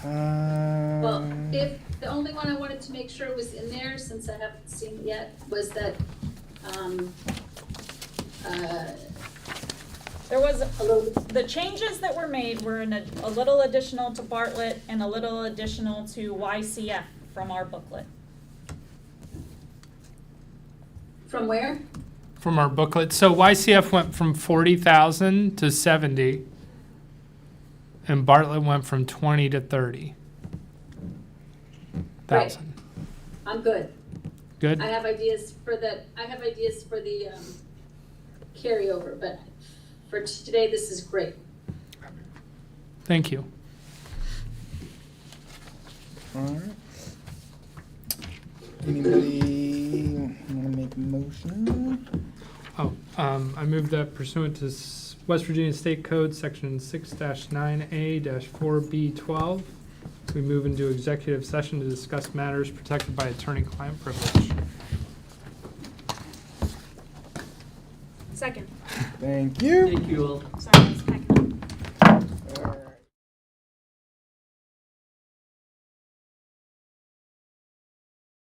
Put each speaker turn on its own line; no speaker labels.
Well,
Um,
if, the only one I wanted to make sure was in there, since I haven't seen it yet, was that, um, uh,
There was,
a little,
the changes that were made were in a, a little additional to Bartlett and a little additional to YCF from our booklet.
from where?
from our booklet. So YCF went from 40,000 to 70, and Bartlett went from 20 to 30,000.
I'm good. I
Good?
have ideas for the, I have ideas for the, um, carryover, but for today, this is great.
Thank you.
alright. Anybody wanna make a motion?
Oh, um, I move that pursuant to S- West Virginia State Code, Section 6-9A-4B12, we move into executive session to discuss matters protected by attorney-client privilege.
Second,
Thank you.
Thank you all.
sorry.